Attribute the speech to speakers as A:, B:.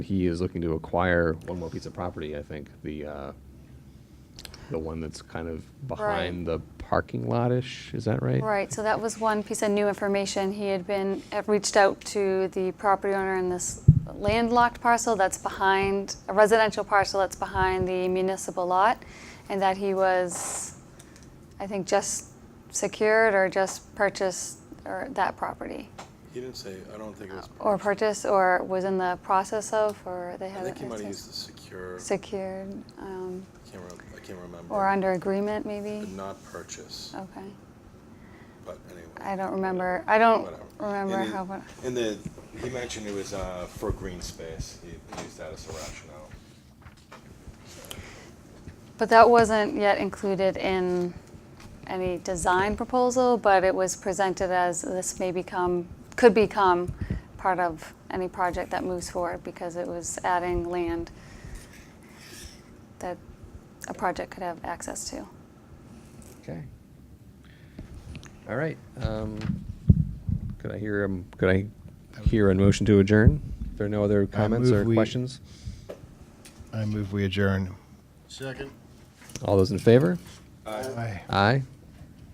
A: He is looking to acquire one more piece of property, I think, the, uh, the one that's kind of behind the parking lot-ish, is that right?
B: Right, so that was one piece of new information. He had been, had reached out to the property owner in this landlocked parcel that's behind, a residential parcel that's behind the municipal lot, and that he was, I think, just secured or just purchased or that property.
C: He didn't say, I don't think it was.
B: Or
C: purchased.
B: purchased, or was in the process of, or they
C: I
B: had.
C: think he
B: it
C: might have used the secure, I
B: Secured, um,
C: can't remember, I can't remember.
B: or under agreement, maybe?
C: But not purchase,
B: Okay,
C: but anyway.
B: I don't remember, I don't
C: whatever.
B: remember
C: And he-
B: how, but-
C: And the, he mentioned it was uh, for green space, he used that as a rationale.
B: But that wasn't yet included in any design proposal, but it was presented as this may become, could become part of any project that moves forward because it was adding land that a project could have access to.
A: Okay. All right, um, could I hear, um, could I hear a motion to adjourn? If there are no other comments
D: move
A: or
D: we-
A: questions?
D: I move we adjourn.
E: Second.
A: All those in favor?
C: Uh,
D: Aye.
A: Aye.